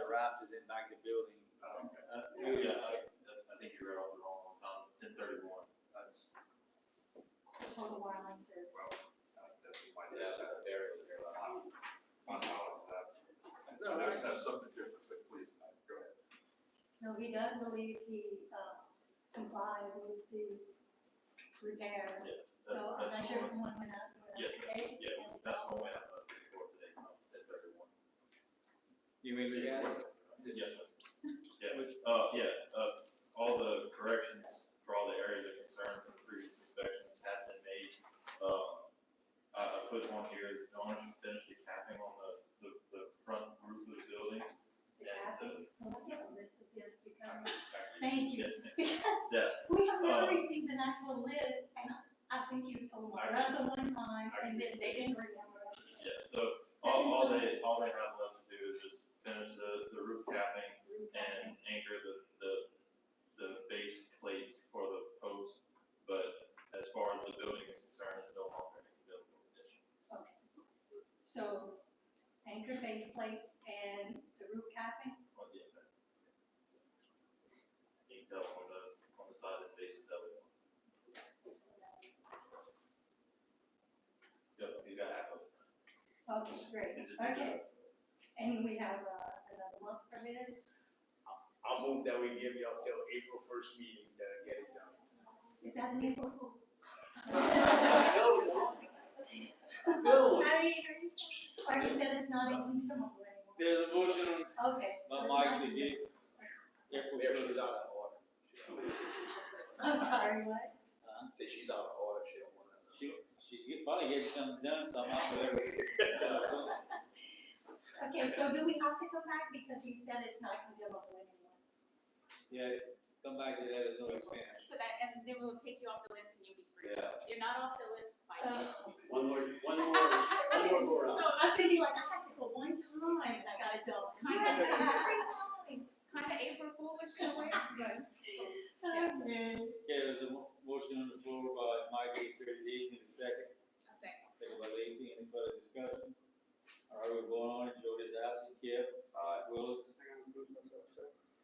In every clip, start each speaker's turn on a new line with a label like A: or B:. A: Raps is in back the building.
B: Oh, okay.
A: Uh,
B: Yeah,
A: yeah,
B: I, I think you read off the wrong one, Tom, it's ten thirty-one, that's,
C: total wireline services.
B: well, uh, that's my, that's a very, very, I'm, I'm out of that.
A: That's all
B: I just
A: right.
B: have something different, but please, uh, go ahead.
C: No, he does believe he, uh, complied with the repairs.
B: Yeah,
C: So I'm
B: that's
C: not sure if
B: fine.
C: someone went out. and
B: Yes,
C: okay,
B: Yeah,
C: and
B: that's
C: so-
B: the way I'm looking for today, ten thirty-one.
A: You mean look at it?
B: Yes, sir. Yeah,
A: Which-
B: uh, yeah, uh, all the corrections for all the areas of concern from previous inspections have been made. Um, I, I put one here, no one should finish the capping on the, the, the front roof of the building.
C: The
B: And,
C: traffic.
B: uh,
C: Well, I have a list of this because,
B: actually,
C: Thank you.
B: yes, ma'am.
C: because
B: Yeah,
C: we have never
B: Um,
C: received an actual list and I- I think you told
B: I-
C: Loretta one time
B: I-
C: and then they didn't remember. it.
B: yeah, so all, all they, all they have left to do is just finish the, the roof capping and anchor the, the, the base plates for the post. But as far as the building is concerned, it's no longer an buildable condition.
C: Okay. So anchor base plates and the roof capping,
B: Well, yeah, that- You can tell on the, on the side of the faces of it. Yep, he's got half of it.
C: Okay, great,
B: It's just-
C: okay. And we have uh, another month for this.
D: I'll move that we give y'all till April first meeting to get it done.
C: Is that an April Fool?
A: Bill,
C: I mean, are you or you said it's not even consumable anymore?
A: there's a motion on
C: Okay. so
A: by
C: it's
A: Mike
C: not-
A: to get April
D: Mayor, she's
A: first.
D: out of order.
C: I'm sorry, what?
A: Uh,
D: Say she's out of order, she don't want to.
A: She, she's get- finally getting something done somehow. but, uh,
C: Okay, so do we have to come back because he said it's not consumable anymore?
A: Yes, come back to that, it's no expense.
E: So that, and then we'll take you off the list and you'll be free.
A: Yeah.
E: You're not off the list by now.
D: One more, one more, one more go
C: Uh, So
D: around.
C: I was thinking like, I had to go one time and I got it done. I
E: You
C: had to
E: had to-
C: go three times.
E: Kind of April Fool, which is weird, but
C: Okay.
A: Okay, there's a mo- motion on the floor by Mike E. eight thirty-eight, need a second.
E: I'll second.
A: Second by Lacy, any further discussion? All right, we're going on, Jody's absent, Kip. Aye. Willis.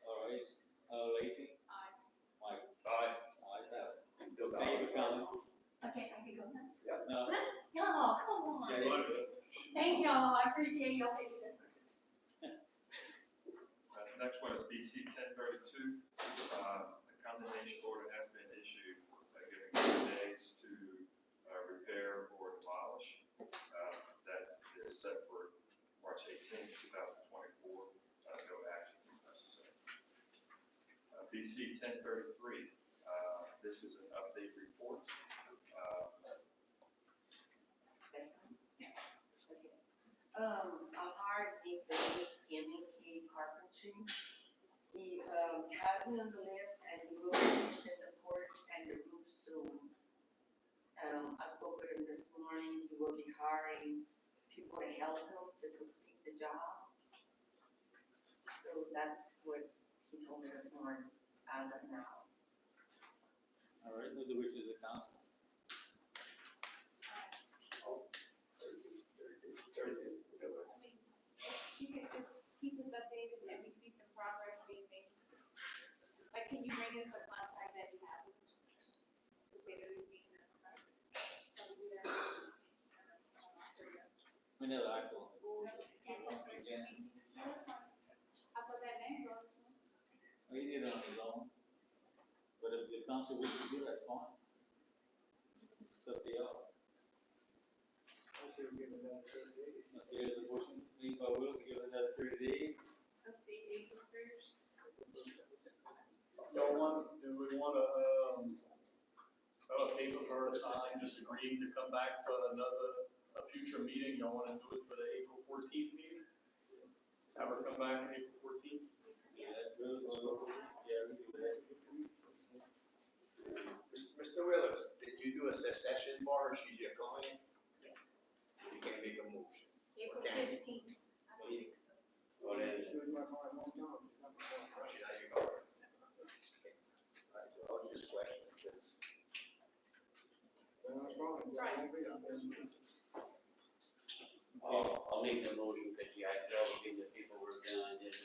A: All right, uh, Lacy,
E: Aye.
A: Mike. Aye. Ayes have it.
D: Still got
A: Thank you for coming.
C: Okay, I can go now.
A: No,
C: Y'all, come
A: yeah,
C: on.
A: yeah.
C: Thank y'all, I appreciate your patience.
B: Uh, Next one is BC ten thirty-two. Uh, a condemnation order has been issued, uh, giving two days to, uh, repair or demolish. Uh, that is set for March eighteenth, two thousand twenty-four. Uh, no action is necessary. Uh, BC ten thirty-three, uh, this is an update report. Uh,
F: Um, I hired a guy in K carpentry. He, um, has me on the list and he will be fixing the porch and the roof soon. Um, I spoke with him this morning, he will be hiring people to help him to complete the job. So that's what he told me this morning, as of now.
A: All right, with the wishes of council.
E: I mean, if you could just keep us updated and we see some progress being made. Like, can you bring us a contact that you have? To say that we've been in the process. So we don't-
A: We never actually.
E: I put that name wrong.
A: So he did it on his own. But if the council wishes to do, that's fine. It's up to y'all. Okay, there's a motion made by Will to give it another thirty days.
E: Update April first.
G: So one, do we want to, um, have a paper for her to sign, just agreeing to come back for another, a future meeting? Y'all want to do it for the April fourteenth meeting? Have her come back on April fourteenth?
A: Yeah, Will, Will, Will, yeah, we do that.
D: Mr. Willis, did you do a secession for her? She's your client?
E: Yes.
D: You can't make a motion.
E: April
D: Okay.
E: fifteenth. I
A: Well, you-
E: think so.
A: What is it?
D: She's not your client. All right, so I was just questioning because.
H: I'll, I'll make the motion, because I can always get the paperwork done, and